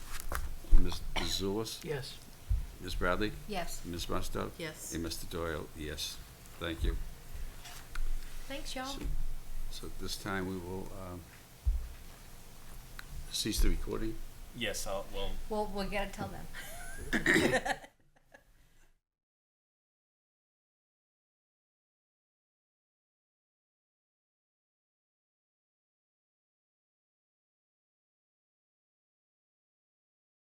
Mrs. Zulus? Yes. Ms. Bradley? Yes. Ms. Musto? Yes. And Mr. Doyle, yes. Thank you. Thanks, y'all. So so at this time, we will um, cease the recording. Yes, I'll, well, Well, we gotta tell them.